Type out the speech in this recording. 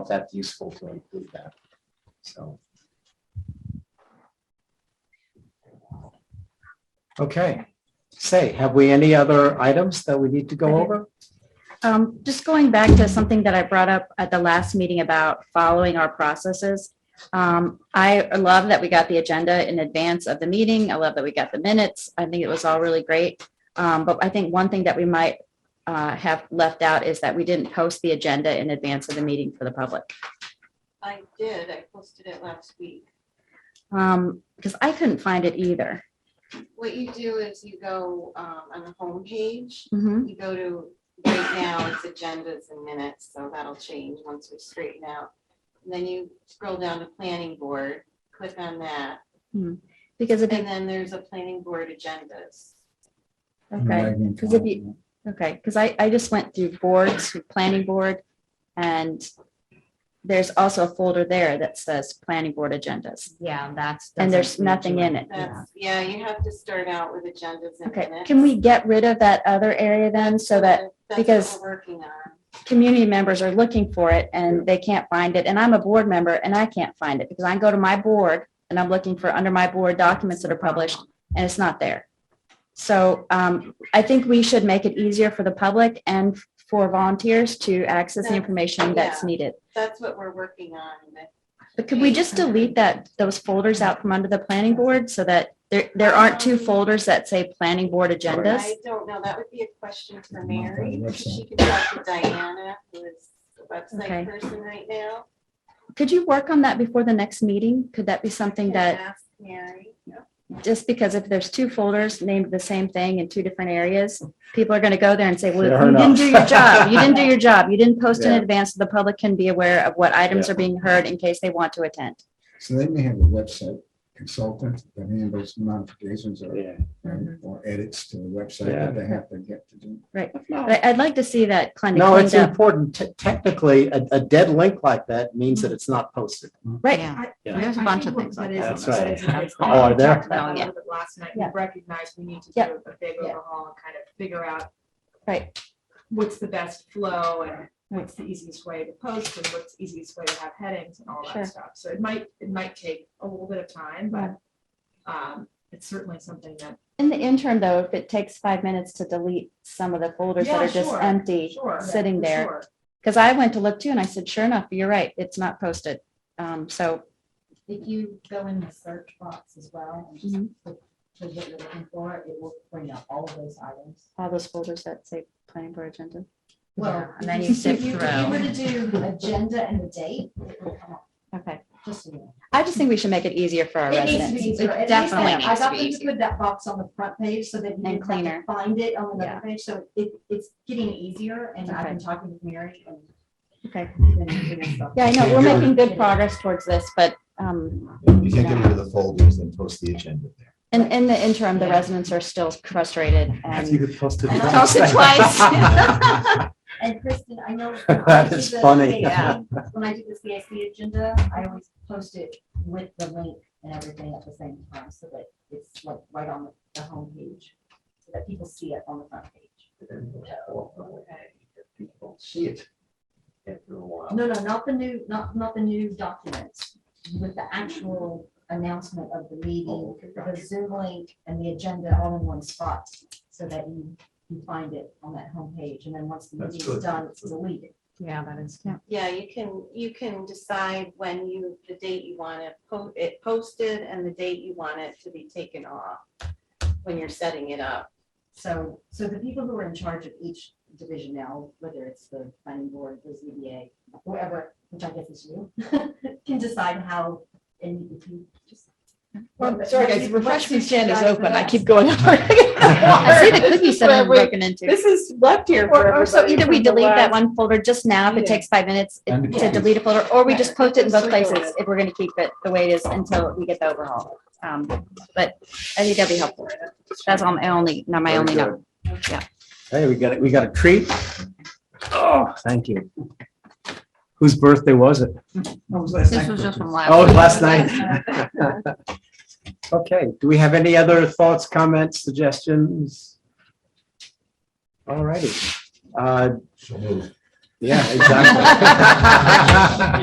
if that's useful to include that. So. Okay, say, have we any other items that we need to go over? Um, just going back to something that I brought up at the last meeting about following our processes. Um, I love that we got the agenda in advance of the meeting. I love that we got the minutes. I think it was all really great. Um, but I think one thing that we might uh, have left out is that we didn't post the agenda in advance of the meeting for the public. I did, I posted it last week. Um, because I couldn't find it either. What you do is you go um, on the homepage, Mhm. you go to, right now, it's agendas and minutes, so that'll change once we straighten out. And Then you scroll down to planning board, click on that, Because if, and you- then there's a planning board agendas. okay, because if you, okay, because I, I just went through boards, planning board, and there's also a folder there that says planning board agendas. Yeah, that's. And there's doesn't nothing read in you. it. Yeah. That's, yeah, you have to start out with agendas and Okay, minutes. can we get rid of that other area then so that That's what because- we're Working on. community members are looking for it and they can't find it? And I'm a board member and I can't find it because I go to my board and I'm looking for under my board documents that are published and it's not there. So um, I think we should make it easier for the public and for volunteers to access the information that's Yeah. needed. That's what we're working on. But could we just delete that, those folders out from under the planning board so that there, there aren't two folders that say planning board agendas? I don't know, that would be a question for Not on the Mary, website. she can talk to Diana, who is the Okay. website person right now. Could you work on that before the next meeting? Could that be something Can that, ask Mary, just because if there's two folders named the same thing in two different areas, people are going to go there and say, well, Fair you didn't do your enough. job. You didn't do your job. You didn't post in Yeah. advance. so The public can be aware of what items are being heard in case they want to attend. So they may have a website consultant that handles modifications or, Yeah. or edits to the website that they have to get to do. But I- I'd like to see that kind of No, it's cleaned up. important. Te- Technically, a, a dead link like that means that it's not posted. Right. Yeah. Yeah. There's a bunch of things like that. That's right. Oh, Oh, are there? Yeah. Last night, Yeah. we recognized we need to do Yeah. a big Yeah. overhaul and kind of figure out Right. what's the best flow and what's the easiest way to post and what's the easiest way to have headings and all Sure. that stuff. So it might, it might take a little bit of time, but um, it's certainly something that, In the interim, though, if it takes five minutes to delete some of the folders that Yeah, are just sure, empty, sure. sitting for there. sure. Because I went to look too and I said, sure enough, you're right. It's not posted. Um, So If you go in the search box as well and just Mhm. put put what you're looking for, it will bring up all of those items. all those folders that say planning board agenda. Well, and then if you sift if you- through. If you were to do agenda and the date, it will come up, Okay. just. so you know. I just think we should make it easier for our It needs to be residents. easier. It At least definitely I- needs to I got be them to easier. put that box on the front page so that you And didn't have cleaner. to find it on Yeah. another page. So it, it's getting easier and I've Okay. been talking with Mary and. Okay. and doing stuff. Yeah, I know, we're making good progress towards this, but um, You can't get rid of the folders and post the agenda there. in, in the interim, the residents are still frustrated and could post it. Post it twice. And Kristen, I know. That is funny. Yeah. When I do the CIC agenda, I always post it with the link and everything at the same time, so that it's like right on the homepage, so that people see it on the front page. See it. After a while. No, no, not the new, not, not the new documents, with the actual announcement of the Oh, meeting, the Zoom link and the agenda all in one spot, so that you, you find it on that homepage, and then once the That's meeting's good. done, it's deleted. Yeah, that is. yeah, you can, you can decide when you, the date you want it po- it posted and the date you want it to be taken off when you're setting it up. So, so the people who are in charge of each division now, whether it's the planning board, the ZBA, whoever, which I guess is you, can decide how, and if you just. Well, sorry, guys, refreshment stand is Guys, open. I relax. keep going. I see the over. cookie center broken into. This is left here for Or, or so everybody either we from the delete that last- one folder just now, if it takes five minutes And- to delete a folder, or we just post it in both Just places circle it. if we're gonna keep it the way it is until we get the overhaul. Um, But I think that'd be helpful. That's all my only, not my Very only good. note. Hey, we got it. We got a treat. Oh, thank you. Whose birthday was it? This was just from last. Oh, week. last night. Okay, do we have any other thoughts, comments, suggestions? All righty. Uh, So move. Yeah, exactly.